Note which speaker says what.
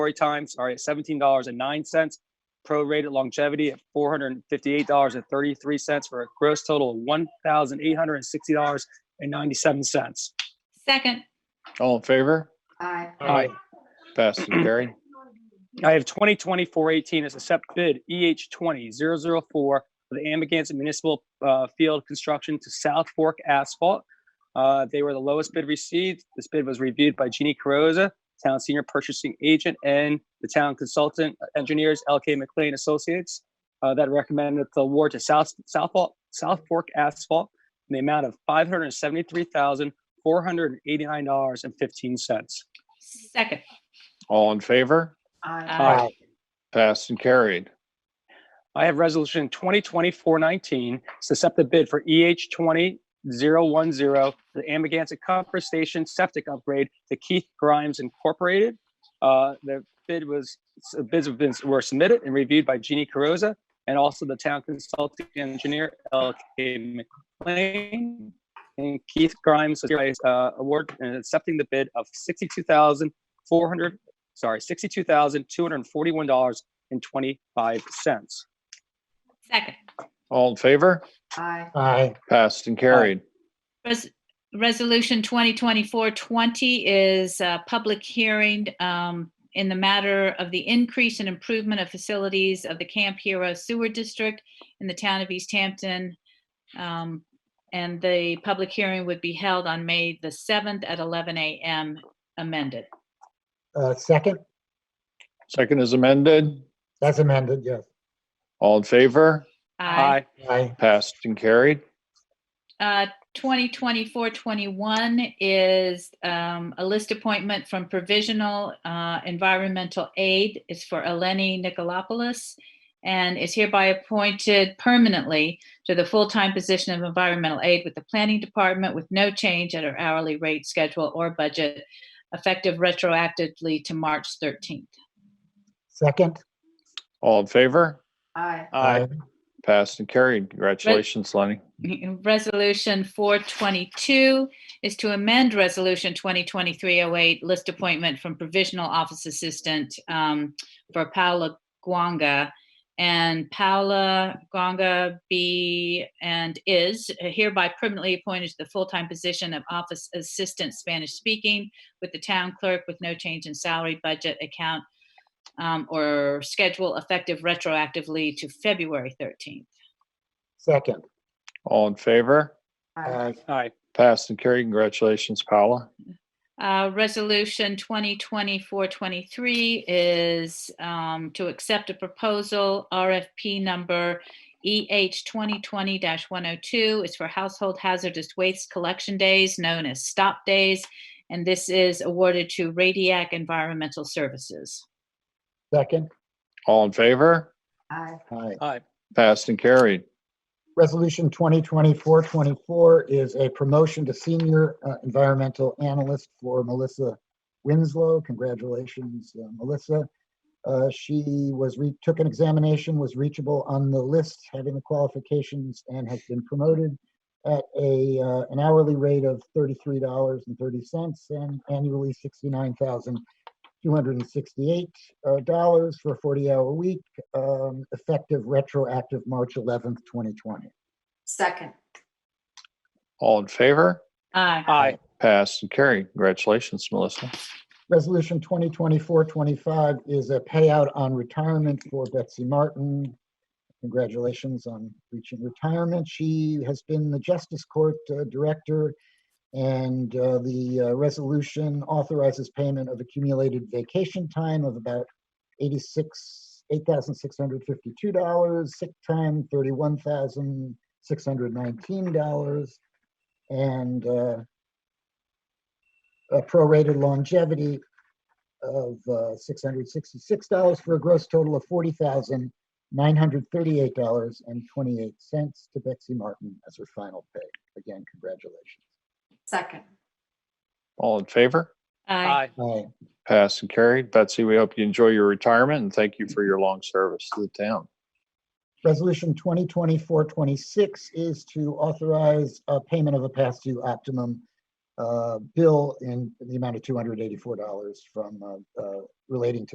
Speaker 1: story time, sorry, at $17.09, prorated longevity at $458.33 for a gross total of $1,860.97.
Speaker 2: Second,
Speaker 3: All in favor?
Speaker 4: Aye.
Speaker 1: Aye.
Speaker 3: Passed and carried.
Speaker 1: I have 2020-418 as a SEP bid EH 20-004 for the Amagansett Municipal uh, Field Construction to South Fork Asphalt. Uh, They were the lowest bid received. This bid was reviewed by Jeannie Carrozza, Town Senior Purchasing Agent, and the Town Consultant Engineers LK McLean Associates uh, that recommended the award to South South Fork- South Fork Asphalt in the amount of $573,489.15.
Speaker 2: second, Uh,
Speaker 3: All in favor?
Speaker 4: Aye.
Speaker 1: Aye.
Speaker 3: Passed and carried.
Speaker 1: I have resolution 2020-419, accept the bid for EH 20010, the Amagansett Comfort Station Septic Upgrade to Keith Grimes Incorporated. Uh, The bid was, bids have been, were submitted and reviewed by Jeannie Carrozza and also the town consulting engineer, LK McLean. And Keith Grimes was hereby, uh, award and accepting the bid of 62400 sorry, $62,241.25.
Speaker 2: second.
Speaker 3: All in favor?
Speaker 4: Aye.
Speaker 5: Aye.
Speaker 3: Passed and carried.
Speaker 2: Res- Resolution 2024-20 is a public hearing um, in the matter of the increase and improvement of facilities of the Camp Hero Sewer District in the town of East Hampton. Um, And the public hearing would be held on May the 7th at 11 a.m. amended.
Speaker 5: Uh, Second,
Speaker 3: Second is amended.
Speaker 5: that's amended, yes.
Speaker 3: All in favor?
Speaker 2: Aye.
Speaker 1: Aye.
Speaker 5: Aye.
Speaker 3: Passed and carried.
Speaker 2: Uh, 2024-21 is um, a list appointment from Provisional uh, Environmental Aid. It's for Eleni Nikolopoulos and is hereby appointed permanently to the full-time position of environmental aid with the Planning Department with no change at her hourly rate, schedule, or budget, effective retroactively to March 13th.
Speaker 5: Second?
Speaker 3: All in favor?
Speaker 4: Aye.
Speaker 3: Passed and carried. Congratulations, Lenny.
Speaker 2: Resolution 422 is to amend Resolution 2023-08, list appointment from provisional office assistant um, for Paula Guanga. And Paula Guanga be and is hereby permanently appointed to the full-time position of office assistant Spanish speaking with the town clerk with no change in salary, budget, account, um, or schedule effective retroactively to February 13th.
Speaker 5: Second?
Speaker 3: All in favor?
Speaker 4: Aye.
Speaker 1: Aye.
Speaker 3: Passed and carried. Congratulations, Paula.
Speaker 2: Uh, Resolution 2024-23 is um, to accept a proposal, RFP number EH 2020-102. It's for household hazardous waste collection days, known as STOP Days. And this is awarded to Radiac Environmental Services.
Speaker 5: Second?
Speaker 3: All in favor?
Speaker 4: Aye.
Speaker 5: Aye.
Speaker 1: Aye.
Speaker 3: Passed and carried.
Speaker 5: Resolution 2024-24 is a promotion to senior uh, environmental analyst for Melissa Winslow. Congratulations, uh, Melissa. Uh, She was, re- took an examination, was reachable on the list, having the qualifications, and has been promoted at a, uh, an hourly rate of $33.30 and annually $69,268 uh, dollars for a 40-hour week um, effective retroactive March 11th, 2020.
Speaker 4: Second.
Speaker 3: All in favor?
Speaker 2: Aye.
Speaker 1: Aye.
Speaker 3: Passed and carried. Congratulations, Melissa.
Speaker 5: Resolution 2024-25 is a payout on retirement for Betsy Martin. Congratulations on reaching retirement. She has been the Justice Court uh, Director, and uh, the uh, resolution authorizes payment of accumulated vacation time of about 86, $8,652, sick time $31,619, and uh, a prorated longevity of uh, $666 for a gross total of $40,938.28 to Betsy Martin as her final pay. Again, congratulations.
Speaker 4: Second.
Speaker 3: All in favor?
Speaker 2: Aye.
Speaker 1: Aye.
Speaker 5: Aye.
Speaker 3: Passed and carried. Betsy, we hope you enjoy your retirement and thank you for your long service to the town.
Speaker 5: Resolution 2024-26 is to authorize a payment of a past due optimum uh, bill in the amount of $284 from uh, uh, relating to